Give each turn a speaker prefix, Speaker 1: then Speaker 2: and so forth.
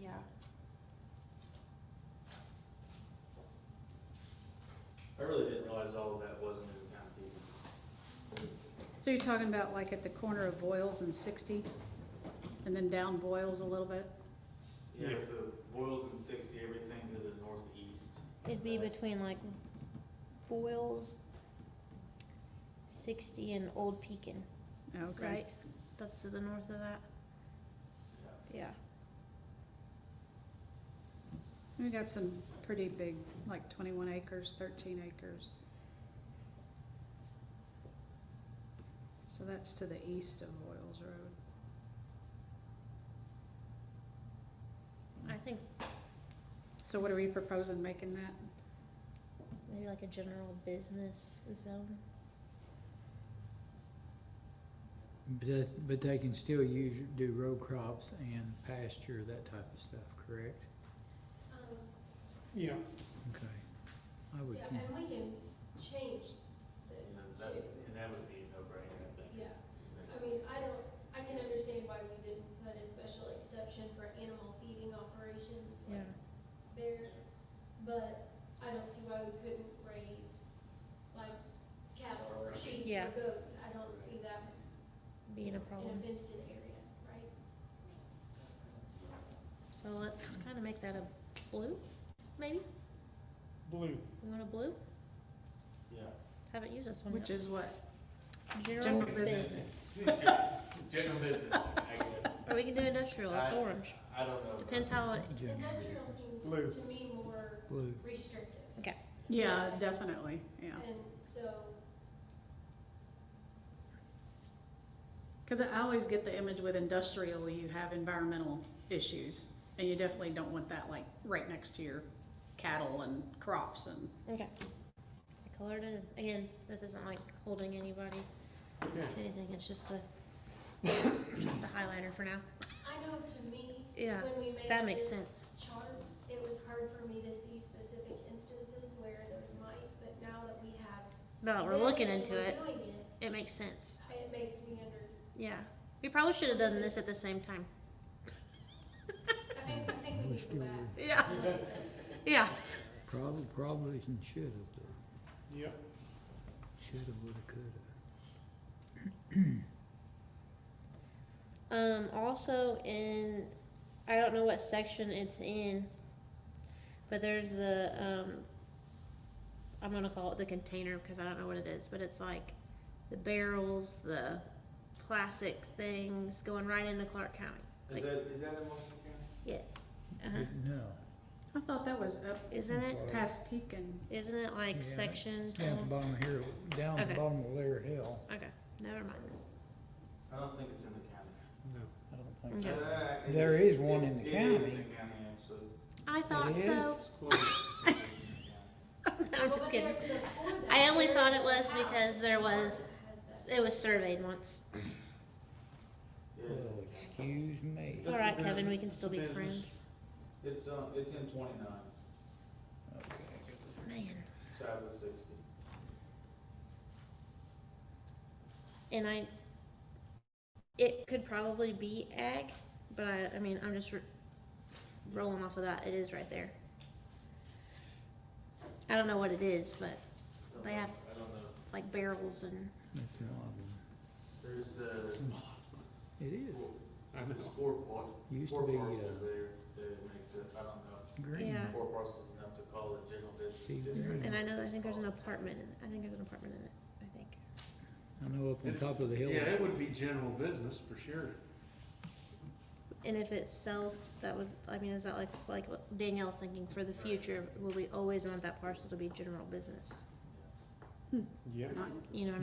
Speaker 1: Yeah,
Speaker 2: I really didn't realize all of that wasn't in the county.
Speaker 3: So you're talking about like at the corner of Boyles and 60, and then down Boyles a little bit?
Speaker 2: Yeah, so Boyles and sixty, everything to the northeast.
Speaker 4: It'd be between like Boyles, sixty and Old Pekin,
Speaker 3: Okay.
Speaker 4: right? That's to the north of that,
Speaker 2: Yeah.
Speaker 4: yeah.
Speaker 3: We got some pretty big, like 21 acres, 13 acres. So that's to the east of Boyles Road.
Speaker 4: I think
Speaker 3: So what are we proposing making that?
Speaker 4: maybe like a general business zone.
Speaker 5: But, that- but they can still use, do row crops and pasture, that type of stuff, correct?
Speaker 6: Yeah,
Speaker 5: Okay. I would,
Speaker 7: Um, Yeah,
Speaker 5: think-
Speaker 7: and we can change
Speaker 2: And
Speaker 7: this
Speaker 2: then that,
Speaker 7: too.
Speaker 2: and that would be a no-brainer, I think.
Speaker 7: Yeah, I mean, I don't, I can understand why we didn't put a special exception for animal feeding operations like there, but I don't see why we couldn't raise like s- cattle or sheep
Speaker 3: Yeah.
Speaker 7: or goats. I don't see that
Speaker 4: Being a
Speaker 7: in a
Speaker 4: problem,
Speaker 7: fenced-in area, right?
Speaker 4: so let's kinda make that a blue, maybe?
Speaker 6: blue.
Speaker 4: We want a blue?
Speaker 2: Yeah.
Speaker 4: Haven't used this one
Speaker 3: Which
Speaker 4: yet.
Speaker 3: is what?
Speaker 4: General
Speaker 3: general business.
Speaker 4: business,
Speaker 2: General business, I guess.
Speaker 4: or we can do industrial, it's
Speaker 2: I-
Speaker 4: orange,
Speaker 2: I don't know.
Speaker 4: depends how it,
Speaker 5: Jim,
Speaker 7: Industrial seems
Speaker 6: Blue.
Speaker 7: to me more
Speaker 5: blue,
Speaker 7: restrictive.
Speaker 4: okay,
Speaker 3: Yeah, definitely, yeah.
Speaker 7: And so,
Speaker 3: Because I always get the image with industrial, you have environmental issues, and you definitely don't want that like right next to your cattle and crops and.
Speaker 4: okay. I colored it, again, this isn't like holding anybody
Speaker 6: Okay.
Speaker 4: to anything, it's just the, just a highlighter for now,
Speaker 7: I know to me,
Speaker 4: yeah,
Speaker 7: when we make
Speaker 4: that makes
Speaker 7: this
Speaker 4: sense.
Speaker 7: chart, it was hard for me to see specific instances where those might, but now that we have.
Speaker 4: No, we're
Speaker 7: this
Speaker 4: looking
Speaker 7: and
Speaker 4: into
Speaker 7: we're
Speaker 4: it,
Speaker 7: doing it,
Speaker 4: it makes sense,
Speaker 7: It makes me under,
Speaker 4: yeah, we probably should have done this at the same time,
Speaker 7: I think, I think
Speaker 5: We're
Speaker 7: we need to
Speaker 5: still
Speaker 7: go back.
Speaker 4: yeah, yeah,
Speaker 5: probably, probably should've, though.
Speaker 6: Yep.
Speaker 5: should've, would've, could've.
Speaker 4: um, also in, I don't know what section it's in, but there's the, um, I'm gonna call it the container, because I don't know what it is, but it's like the barrels, the plastic things going right into Clark County,
Speaker 2: Is that, is that in Washington County?
Speaker 4: uh-huh,
Speaker 5: But No,
Speaker 3: I thought that was up
Speaker 4: isn't it,
Speaker 3: past Pekin.
Speaker 4: isn't it
Speaker 5: Yeah.
Speaker 4: like section
Speaker 5: down at the
Speaker 4: twelve,
Speaker 5: bottom here, down at
Speaker 4: Okay.
Speaker 5: the bottom of Lair Hill,
Speaker 4: okay, never mind,
Speaker 2: I don't think it's in the county.
Speaker 6: No.
Speaker 5: I don't think
Speaker 4: Yeah.
Speaker 5: so.
Speaker 2: Uh, it
Speaker 5: There is one in the
Speaker 2: It is in
Speaker 5: county.
Speaker 2: the county, actually.
Speaker 4: I thought
Speaker 5: is?
Speaker 4: so,
Speaker 2: It's close. It's in the county.
Speaker 4: I'm
Speaker 7: Well,
Speaker 4: just
Speaker 7: but
Speaker 4: kidding.
Speaker 7: there- there are four that-
Speaker 4: I only
Speaker 7: there
Speaker 4: thought
Speaker 7: is
Speaker 4: it
Speaker 7: a
Speaker 4: was
Speaker 7: house
Speaker 4: because there
Speaker 7: that
Speaker 4: was-
Speaker 7: has that.
Speaker 4: It was surveyed once.
Speaker 2: It is in
Speaker 5: Well,
Speaker 2: the county.
Speaker 5: excuse me.
Speaker 4: It's
Speaker 2: That's
Speaker 4: all right,
Speaker 2: a
Speaker 4: Kevin. We
Speaker 2: business-
Speaker 4: can still be
Speaker 2: business.
Speaker 4: friends.
Speaker 2: It's, um, it's in twenty-nine,
Speaker 5: Okay.
Speaker 4: Man.
Speaker 2: south of sixty.
Speaker 4: And I, it could probably be ag, but I, I mean, I'm just r rolling off of that. It is right there. I don't know what it is, but
Speaker 2: I don't
Speaker 4: They
Speaker 2: know.
Speaker 4: have-
Speaker 2: I don't know.
Speaker 4: like barrels and
Speaker 5: That's not one.
Speaker 2: There's, uh,
Speaker 5: It is,
Speaker 2: four-
Speaker 6: I
Speaker 2: there's
Speaker 6: know.
Speaker 2: four par-
Speaker 5: used
Speaker 2: four
Speaker 5: to be,
Speaker 2: parcels
Speaker 5: uh,
Speaker 2: there that makes it, I don't know.
Speaker 5: green.
Speaker 4: Yeah.
Speaker 2: Four parcels enough to call it general business.
Speaker 5: Steve
Speaker 2: district.
Speaker 5: Green.
Speaker 4: and I know that I think there's an apartment in it. I think there's an apartment in it. I think.
Speaker 5: I know up on
Speaker 6: It's-
Speaker 5: top of the hill.
Speaker 6: Yeah, it would be general business for sure.
Speaker 4: And if it sells, that would I mean, is that like like what Danielle's thinking for the future? Will we always want that parcel to be general business?
Speaker 6: Yep.
Speaker 3: Not
Speaker 4: You know.